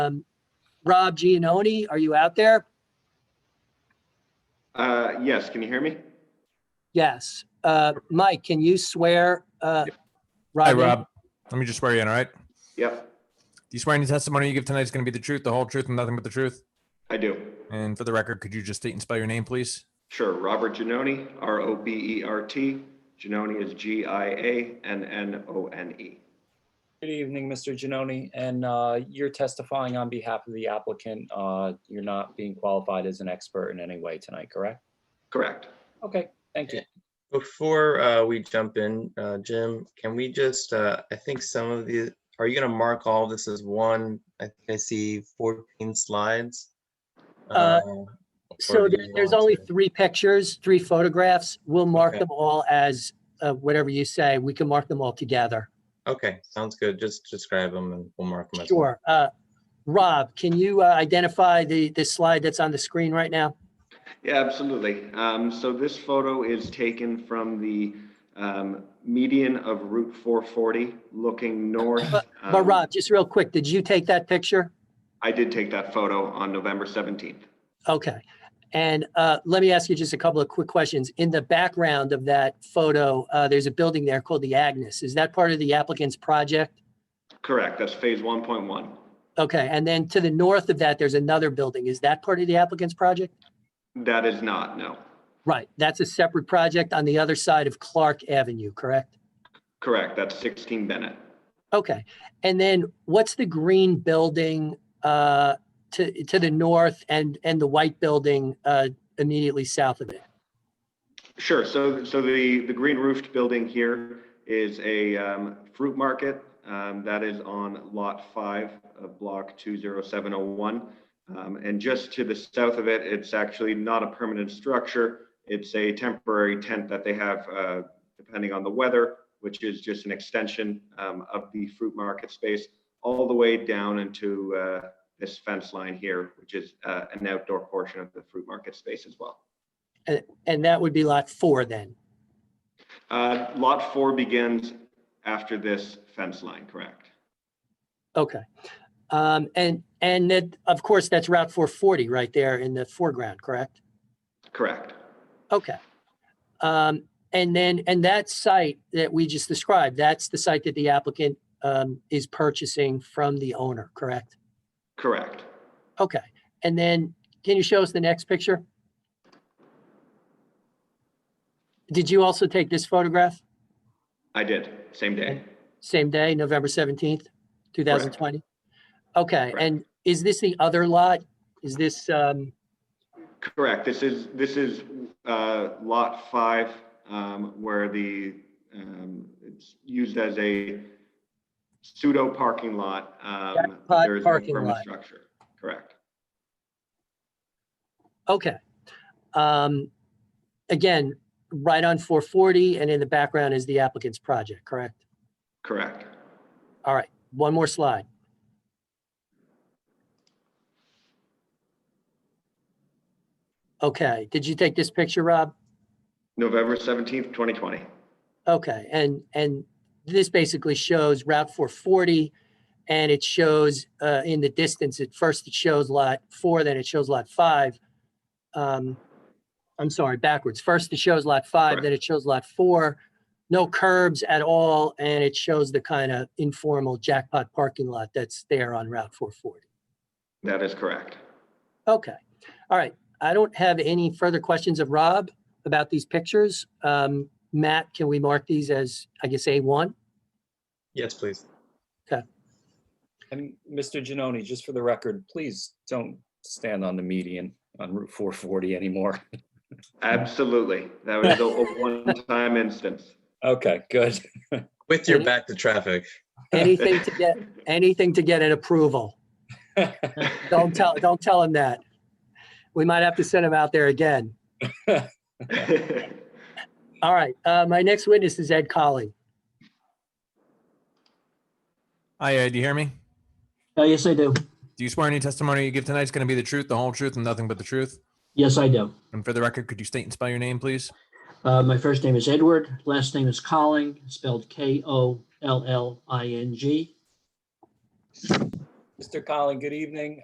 Um, Rob Gianoni, are you out there? Uh, yes, can you hear me? Yes. Uh, Mike, can you swear? uh, Hi, in? Rob. Let me just swear you in, all right? Do Yep, you swear any testimony you give tonight is going to be the truth, the whole truth, and nothing but the truth? I do. And for the record, could you just state and spell your name, please? Sure, Robert Genoni, R O B E R T. Genoni is G I A N N O N E. Good evening, Mr. Genoni, and uh, you're testifying on behalf of the applicant. uh, You're not being qualified as an expert in any way tonight, correct? Correct. Okay, thank you. Before uh, we jump in, uh, Jim, can we just, uh, I think some of the, are you gonna mark all this as one? I think I see 14 slides. Uh, or So do there- you there's want only to- three pictures, three photographs. We'll mark Okay. them all as uh, whatever you say. We can mark them all together. Okay, sounds good. Just describe them and we'll mark them. as one. Sure. Uh, Rob, can you uh, identify the, the slide that's on the screen right now? Yeah, absolutely. Um, so this photo is taken from the um, median of Route 440 looking north. But Um, Rob, just real quick, did you take that picture? I did take that photo on November 17th. Okay. And uh, let me ask you just a couple of quick questions. In the background of that photo, uh, there's a building there called the Agnes. Is that part of the applicant's project? Correct, that's phase 1.1. Okay, and then to the north of that, there's another building. Is that part of the applicant's project? That is not, no. Right, that's a separate project on the other side of Clark Avenue, correct? Correct, that's 16 Bennett. Okay, and then what's the green building uh, to, to the north and, and the white building uh, immediately south of it? Sure. So, so the, the green roofed building here is a um, fruit market. um, That is on lot five of block 20701. Um, And just to the south of it, it's actually not a permanent structure. It's a temporary tent that they have uh, depending on the weather, which is just an extension um, of the fruit market space all the way down into uh, this fence line here, which is uh, an outdoor portion of the fruit market space as well. And that would be lot four then? Uh, Lot four begins after this fence line, correct? Okay. Um, and, and that, of course, that's Route four forty right there in the foreground, correct? Correct. Okay. Um, and then, and that site that we just described, that's the site that the applicant, um, is purchasing from the owner, correct? Correct. Okay. And then can you show us the next picture? Did you also take this photograph? I did, same day. Same day, November seventeenth, two thousand twenty? Okay, Correct. and is this the other lot? Is this, um, Correct. This is, this is uh, lot five um, where the, um, it's used as a pseudo parking lot. um, Jackpot there is no parking permanent lot. Structure, correct. okay. Um, again, right on four forty and in the background is the applicant's project, correct? Correct. All right, one more slide. Okay, did you take this picture, Rob? November 17th, 2020. Okay, and, and this basically shows Route 440, and it shows uh, in the distance, at first it shows Lot 4, then it shows Lot 5. Um, I'm sorry, backwards. First it shows Lot 5, then it shows Lot 4. No curbs at all, and it shows the kind of informal jackpot parking lot that's there on Route 440. That is correct. Okay, all right. I don't have any further questions of Rob about these pictures. Um, Matt, can we mark these as, I guess, A1? Yes, please. And Mr. Genoni, just for the record, please don't stand on the median on Route 440 anymore. Absolutely. That was a a one-time instance. Okay, good. With your Yeah. back to traffic. Anything to get, anything to get an approval. Don't tell, don't tell him that. We might have to send him out there again. All right, uh, my next witness is Ed Colley. Hi, Ed, you hear me? Uh, yes, I do. Do you swear any testimony you give tonight is going to be the truth, the whole truth, and nothing but the truth? Yes, I do. And for the record, could you state and spell your name, please? Uh, my first name is Edward. Last name is Colling, spelled K O L L I N G. Mr. Collin, good evening.